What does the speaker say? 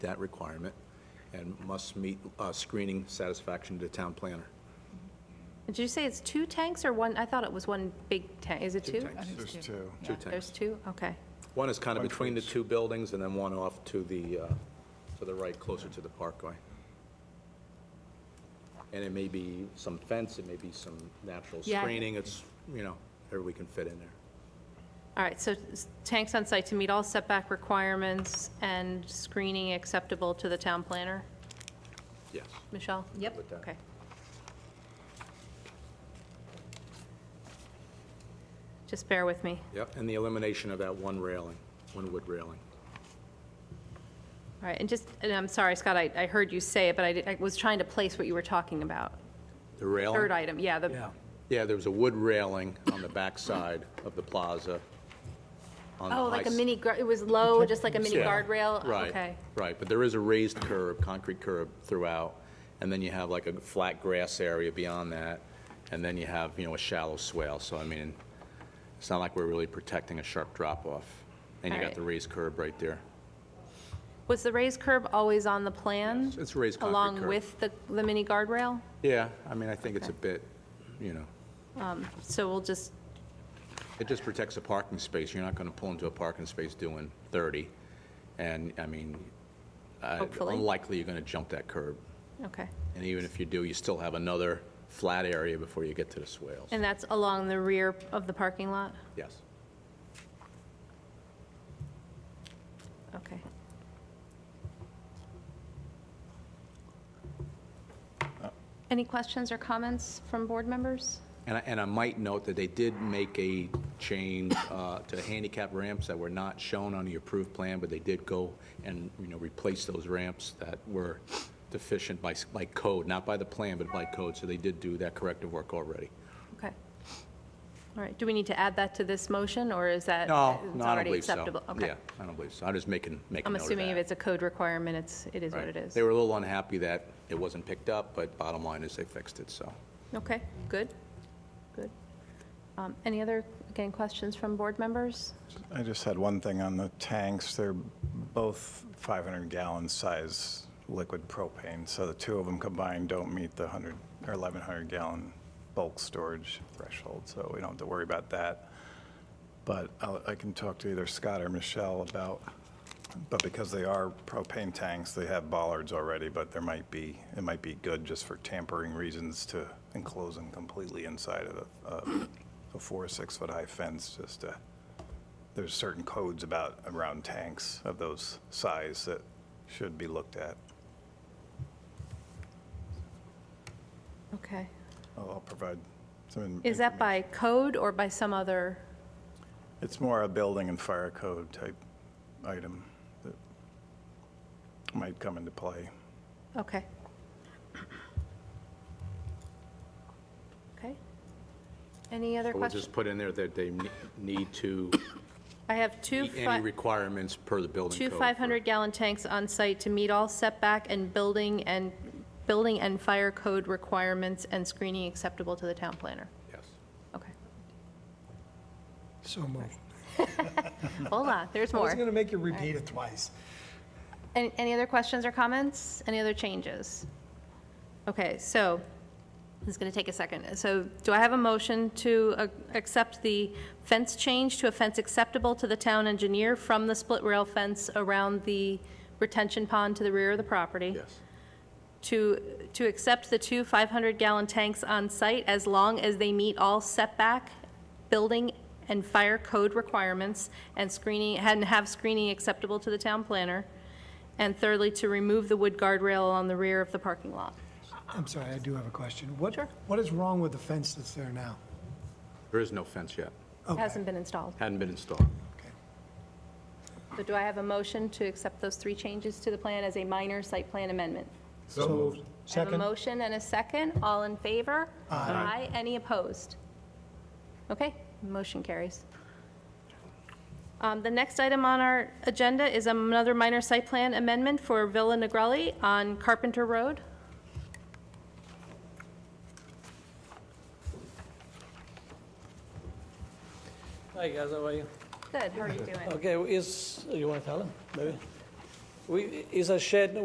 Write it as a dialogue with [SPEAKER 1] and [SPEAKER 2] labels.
[SPEAKER 1] that requirement and must meet uh, screening satisfaction to town planner.
[SPEAKER 2] Did you say it's two tanks or one? I thought it was one big tank. Is it two?
[SPEAKER 1] tanks.
[SPEAKER 3] There's two.
[SPEAKER 1] Two
[SPEAKER 2] There's
[SPEAKER 1] tanks.
[SPEAKER 2] two? Okay.
[SPEAKER 1] One is kind of between the two buildings and then one off to the, uh, to the right, closer to the parkway. And it may be some fence, it may be some natural
[SPEAKER 2] Yeah.
[SPEAKER 1] screening, it's, you know, whatever we can fit in there.
[SPEAKER 2] All right, so s- tanks on site to meet all setback requirements and screening acceptable to the town planner?
[SPEAKER 1] Yes.
[SPEAKER 2] Michelle? Yep.
[SPEAKER 1] With that.
[SPEAKER 2] Okay. Just bear with me.
[SPEAKER 1] Yep, and the elimination of that one railing, one wood railing.
[SPEAKER 2] All right, and just, and I'm sorry, Scott, I, I heard you say it, but I did- I was trying to place what you were talking about.
[SPEAKER 1] The railing?
[SPEAKER 2] Third item, yeah, the,
[SPEAKER 4] Yeah,
[SPEAKER 1] Yeah, there was a wood railing on the backside of the plaza. on the
[SPEAKER 2] oh,
[SPEAKER 1] high
[SPEAKER 2] like a
[SPEAKER 1] s-
[SPEAKER 2] mini, gar- it was low, just like a mini
[SPEAKER 1] Yeah,
[SPEAKER 2] guardrail?
[SPEAKER 1] Right,
[SPEAKER 2] Okay.
[SPEAKER 1] right, but there is a raised curb, concrete curb throughout, and then you have like a flat grass area beyond that, and then you have, you know, a shallow swale, so I mean, it's not like we're really protecting a sharp drop-off. And you got
[SPEAKER 2] Alright.
[SPEAKER 1] the raised curb right there.
[SPEAKER 2] Was the raised curb always on the plan?
[SPEAKER 1] Yes, it's raised concrete
[SPEAKER 2] Along
[SPEAKER 1] curb.
[SPEAKER 2] with the, the mini guardrail?
[SPEAKER 1] Yeah, I mean, I think it's a bit, you know,
[SPEAKER 2] So we'll just,
[SPEAKER 1] it just protects a parking space, you're not gonna pull into a parking space doing 30, and, I mean, I-
[SPEAKER 2] Hopefully.
[SPEAKER 1] unlikely you're gonna jump that curb.
[SPEAKER 2] okay.
[SPEAKER 1] And even if you do, you still have another flat area before you get to the swales.
[SPEAKER 2] And that's along the rear of the parking lot?
[SPEAKER 1] Yes.
[SPEAKER 2] Okay. Any questions or comments from board members?
[SPEAKER 1] And I, and I might note that they did make a change uh, to the handicap ramps that were not shown on the approved plan, but they did go and, you know, replace those ramps that were deficient by, s- by code, not by the plan, but by code. So they did do that corrective work already.
[SPEAKER 2] Okay. All right, do we need to add that to this motion, or is that?
[SPEAKER 1] No,
[SPEAKER 2] it's
[SPEAKER 1] no, I don't
[SPEAKER 2] already
[SPEAKER 1] believe so.
[SPEAKER 2] acceptable?
[SPEAKER 1] Yeah,
[SPEAKER 2] Okay.
[SPEAKER 1] I don't believe so. I'm just making, making
[SPEAKER 2] I'm
[SPEAKER 1] note of
[SPEAKER 2] assuming if
[SPEAKER 1] that.
[SPEAKER 2] it's a code requirement, it's, it is what
[SPEAKER 1] Right.
[SPEAKER 2] it is.
[SPEAKER 1] They were a little unhappy that it wasn't picked up, but bottom line is they fixed it, so.
[SPEAKER 2] Okay, good, good. Um, Any other, again, questions from board members?
[SPEAKER 3] I just had one thing on the tanks. They're both 500-gallon size liquid propane, so the two of them combined don't meet the 100, or 1,100-gallon bulk storage threshold, so we don't have to worry about that. But I'll- I can talk to either Scott or Michelle about, but because they are propane tanks, they have bollards already, but there might be, it might be good just for tampering reasons to enclose them completely inside of a- of a four, or six-foot-high fence, just to there's certain codes about around tanks of those size that should be looked at.
[SPEAKER 2] Okay.
[SPEAKER 3] I'll I'll provide some. in-
[SPEAKER 2] Is that by code or by some other?
[SPEAKER 3] It's more a building and fire code type item that might come into play.
[SPEAKER 2] Okay. Okay. Any other
[SPEAKER 1] We'll
[SPEAKER 2] questions?
[SPEAKER 1] just put in there that they ne- need to
[SPEAKER 2] I have two,
[SPEAKER 1] meet any
[SPEAKER 2] fi-
[SPEAKER 1] requirements per the building
[SPEAKER 2] two
[SPEAKER 1] code. for-
[SPEAKER 2] 500-gallon tanks on site to meet all setback and building and, building and fire code requirements and screening acceptable to the town planner.
[SPEAKER 1] Yes.
[SPEAKER 2] Okay.
[SPEAKER 4] so moved.
[SPEAKER 2] Hold on, there's
[SPEAKER 4] I was going
[SPEAKER 2] more.
[SPEAKER 4] to make you repeat it twice.
[SPEAKER 2] Any, any other questions or comments? Any other changes? Okay, so, it's going to take a second. So do I have a motion to uh, accept the fence change to a fence acceptable to the town engineer from the split rail fence around the retention pond to the rear of the property?
[SPEAKER 1] Yes.
[SPEAKER 2] To, to accept the two 500-gallon tanks on site as long as they meet all setback, building, and fire code requirements and screening, and have screening acceptable to the town planner? And thirdly, to remove the wood guardrail along the rear of the parking lot?
[SPEAKER 4] I'm sorry, I do have a question. What,
[SPEAKER 2] Sure.
[SPEAKER 4] what is wrong with the fence that's there now?
[SPEAKER 1] There is no fence yet.
[SPEAKER 2] It hasn't been installed.
[SPEAKER 1] Hadn't been installed.
[SPEAKER 4] Okay.
[SPEAKER 2] So do I have a motion to accept those three changes to the plan as a minor site plan amendment?
[SPEAKER 4] So moved.
[SPEAKER 2] I have a
[SPEAKER 4] Second?
[SPEAKER 2] motion and a second. All in favor? Aye. Any opposed? Okay, motion carries. Um, The next item on our agenda is another minor site plan amendment for Villa Negrelli on Carpenter Road.
[SPEAKER 5] Hi guys, how are you?
[SPEAKER 2] Good, how are you doing?
[SPEAKER 5] Okay, is, you want to tell him, maybe? We, is a shed